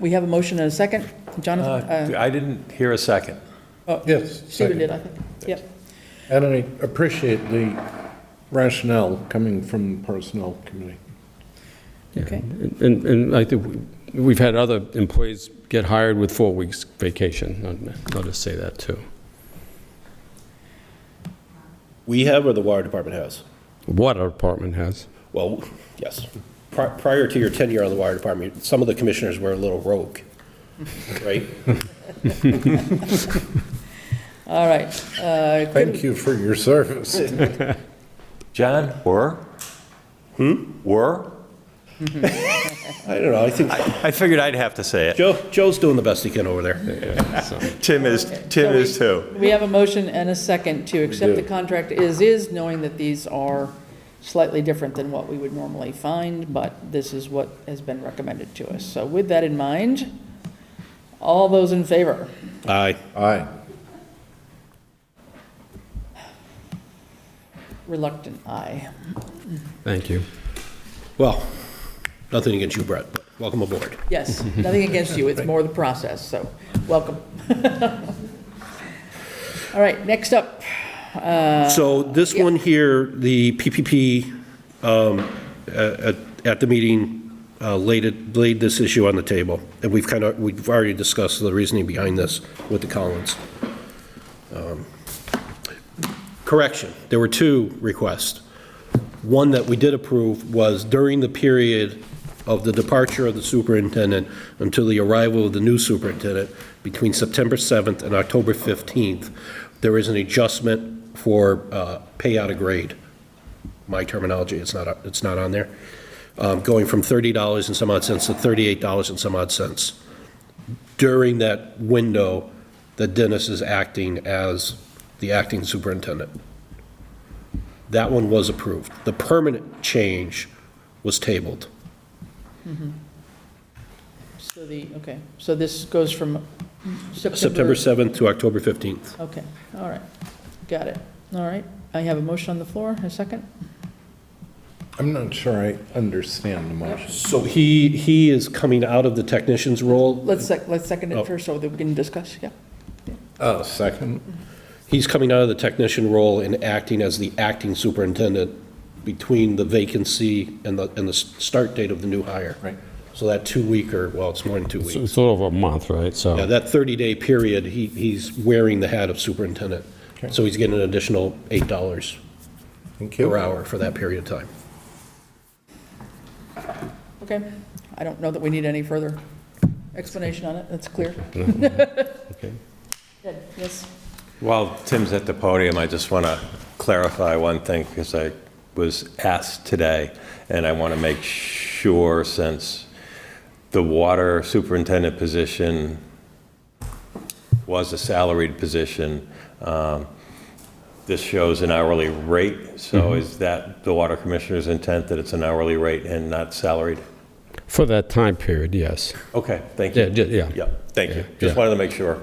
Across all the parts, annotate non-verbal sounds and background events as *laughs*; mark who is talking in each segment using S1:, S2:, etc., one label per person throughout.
S1: we have a motion and a second. Jonathan,
S2: Uh, I didn't hear a second.
S3: Yes,
S1: Stephen did,
S3: second.
S1: I think. Yep.
S3: And I appreciate the rationale coming from the Personnel Committee.
S1: Okay.
S4: And, and I think we- we've had other employees get hired with four weeks vacation. I'll- I'll just say that, too.
S5: We have or the water department has?
S4: Water department has.
S5: Well, yes. Pri- Prior to your tenure on the water department, some of the commissioners were a little rogue, right?
S1: All right. Uh, could-
S3: Thank you for your service.
S2: John? Were? Hmm? Were?
S5: I don't know, I think
S2: I figured I'd have to say it.
S5: Joe, Joe's doing the best he can over there.
S2: Tim is, Tim is too.
S1: We have a motion and a second to accept the contract as is, knowing that these are slightly different than what we would normally find, but this is what has been recommended to us. So with that in mind, all those in favor?
S5: Aye.
S3: Aye.
S1: Reluctant aye.
S4: Thank you.
S5: Well, nothing against you, Brett, but welcome aboard.
S1: Yes, nothing against you, it's more the process, so welcome. *laughs* All right, next up,
S5: So this one here, the PPP, um, at at the meeting, uh, laid it, laid this issue on the table, and we've kind of, we've already discussed the reasoning behind this with the Collins. Um, Correction, there were two requests. One that we did approve was during the period of the departure of the superintendent until the arrival of the new superintendent, between September 7th and October 15th, there is an adjustment for uh, pay out of grade. My terminology, it's not, it's not on there. Um, Going from $30 and some odd cents to $38 and some odd cents. During that window, that Dennis is acting as the acting superintendent. That one was approved. The permanent change was tabled.
S1: so the, okay, so this goes from
S5: September
S1: September.
S5: 7th to October 15th.
S1: Okay, all right, got it. All right, I have a motion on the floor, a second?
S3: I'm not sure I understand the motion.
S5: So he, he is coming out of the technician's role.
S1: Let's sec, let's second
S5: Oh.
S1: it first so that we can discuss, yeah.
S3: Oh, second?
S5: He's coming out of the technician role and acting as the acting superintendent between the vacancy and the, and the s- start date of the new hire.
S3: Right.
S5: So that two-week, or, well, it's more than two
S4: So
S5: weeks.
S4: It's a little over a month, right?
S5: Yeah,
S4: So,
S5: that 30-day period, he, he's wearing the hat of superintendent. So he's getting an additional $8
S3: Thank you.
S5: per hour for that period of time.
S1: Okay, I don't know that we need any further explanation on it, that's clear.
S4: *laughs* okay.
S1: Good, Yes,
S2: While Tim's at the podium, I just want to clarify one thing because I was asked today, and I want to make sure since the water superintendent position was a salaried position, um, this shows an hourly rate.
S4: Mm-hmm.
S2: So is that the water commissioner's intent that it's an hourly rate and not salaried?
S4: For that time period, yes.
S2: Okay, thank
S4: Yeah,
S2: you.
S4: ju- yeah.
S2: Yeah, thank you.
S4: Yeah,
S2: Just
S4: yeah.
S2: wanted to make sure.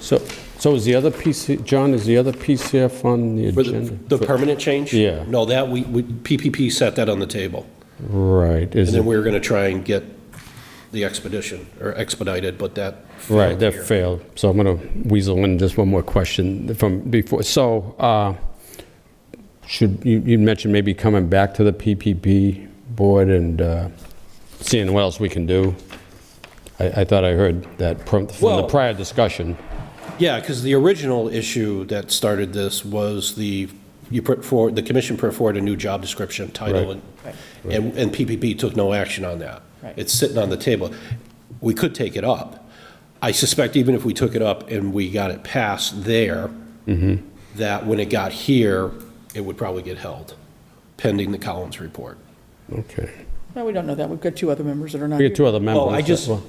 S4: So, so is the other PC, John, is the other PCF on the
S5: For the,
S4: agenda?
S5: the permanent change?
S4: Yeah.
S5: No, that, we, we- PPP set that on the table,
S4: Right, is
S5: and then
S4: it,
S5: we were gonna try and get the expedition, or expedited, but that. failed
S4: right, that
S5: here.
S4: failed. So I'm going to weasel in just one more question from before. So, uh, should, you, you mentioned maybe coming back to the PPP board and uh, seeing what else we can do? I, I thought I heard that from from the
S5: Well-
S4: prior discussion.
S5: Yeah, because the original issue that started this was the, you put forward, the commission put forward a new job description title,
S4: Right.
S5: and, and and PPP took no action on that.
S1: Right.
S5: It's sitting on the table. We could take it up. I suspect even if we took it up and we got it passed there, that when it got here, it would probably get held, pending the Collins report.
S4: Okay.
S1: no, we don't know that, we've got two other members that are not
S4: We
S1: here.
S4: got two other members.
S5: Oh, I just-
S4: Well,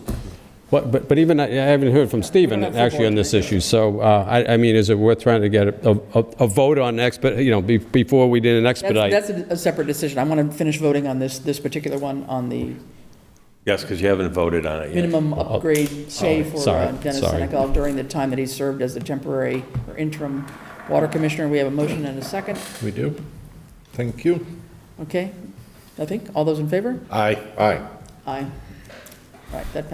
S4: But, but but even, I I haven't heard from Stephen,
S1: have full
S4: actually, on
S1: board
S4: this issue, so, uh, I, I mean, is it worth trying to get a, a a vote on expedite, you know, be- before we did an
S1: That's,
S4: expedite?
S1: that's a a separate decision, I want to finish voting on this, this particular one, on the
S2: Yes, because you haven't voted on it yet.
S1: minimum upgrade pay for
S4: Oh, sorry,
S1: uh, Dennis
S4: sorry.
S1: Senegal during the time that he served as the temporary or interim water commissioner. We have a motion and a second,
S3: We do? Thank you.
S1: okay? I think, all those in favor?
S5: Aye.
S3: Aye.
S1: Aye. All right, that